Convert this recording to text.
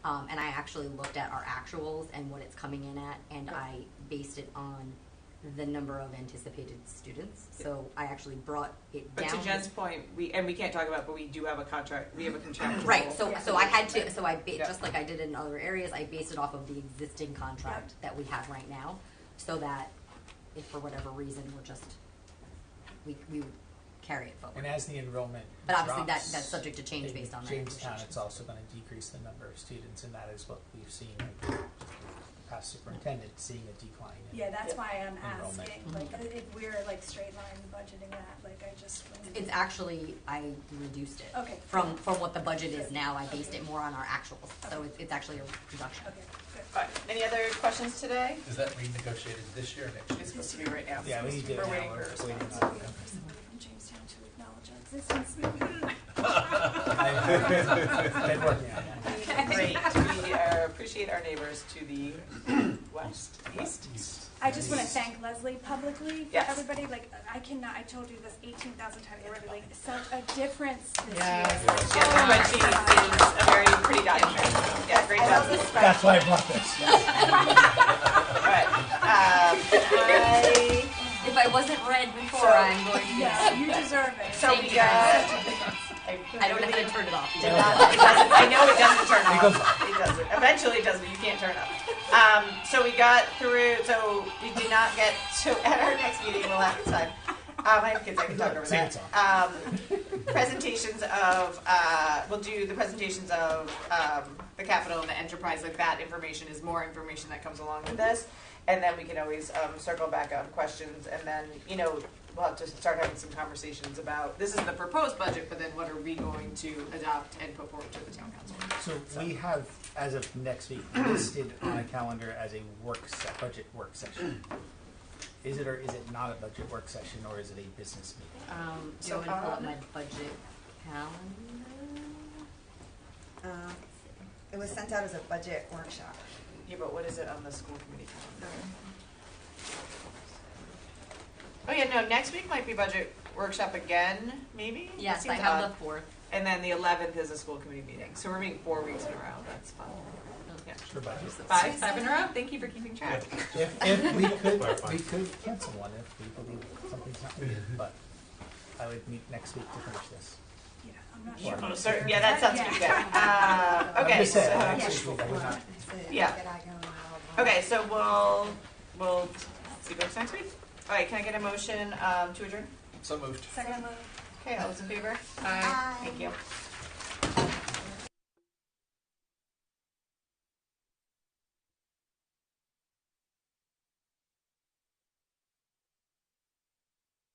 Um, and I actually looked at our actuals and what it's coming in at, and I based it on the number of anticipated students. So I actually brought it But down. to Jen's point, we and we can't talk about, it, but we do have a contract. We have a contract. Right, so, Yeah. so I had to, so I, ba- Yeah. just like I did in other areas, I based it off of the existing contract that we have right now, so that if for whatever reason, we're just, we, we carry it And forward. as the enrollment But obviously, that, drops that's subject to change in based on that. Jamestown, negotiation. it's also gonna decrease the number of students, and that is what we've seen with the past superintendent, seeing a decline in. Yeah, that's why I'm Enrollment. Mm-hmm. asking, like, if we're like straight line budgeting that, like, I just. It's actually, I reduced it. Okay. From, from what the budget is now, I based it more on our actuals, so it's, it's actually a reduction. Okay, good. All right. Any other questions today? Is that renegotiated this year or next year? It's supposed to be right now. Yeah, we need to, We're now waiting for a we're response. waiting So on we them. have somebody from Jamestown to acknowledge our existence. I've been working on that. Great. We uh, appreciate our neighbors to the west, east. I just wanna thank Leslie publicly for Yes. everybody, like, I cannot, I told you this eighteen thousand times already, like, such a difference this Yes. year. oh Yes, but she is a very pretty guy. Yeah, great job. That's why I brought this. All right. Um, I, If I wasn't read before, I'm going to, Yeah, you deserve it. so we Thank you. got. I don't have to turn it off. Did not- it doesn't- I know it doesn't turn off. goes It doesn't. Eventually it does, but you can't turn it off. Um, so we got through, so we did not get, so at our next meeting, we'll have time. Um, I have kids, I can talk over Sing that. it Um, presentations of, uh, we'll do the presentations of, um, the capital and the enterprise, like that information is more information that comes along with this. And then we can always, um, circle back on questions and then, you know, we'll have to start having some conversations about, this is the proposed budget, but then what are we going to adopt and put forward to the town council? So we have, as of next week, listed on a calendar as a work se- budget work session. Is it or is it not a budget work session, or is it a business meeting? Um, do you So, want me to pull up um, my budget calendar? Um, It was sent out as a budget workshop. Yeah, but what is it on the school committee calendar? Oh yeah, no, next week might be budget workshop again, maybe? That Yes, I seems have odd. the fourth. And then the eleventh is a school committee meeting, so we're meeting four weeks in a row, that's fun. Yeah. For budget? Five, five in a row, thank you for keeping track. If, if we could, we could cancel one if we believe something's not needed, but I would meet next week to finish this. Yeah, I'm not Sure. sure. Oh, sorry, yeah, that sounds pretty good. Uh, I'm okay, just saying, so- next week week, I would not Yeah. Okay, so we'll, we'll see what's next week. All right, can I get a motion um, to adjourn? So moved. Second move. Okay, all those in favor? Aye. Thank you.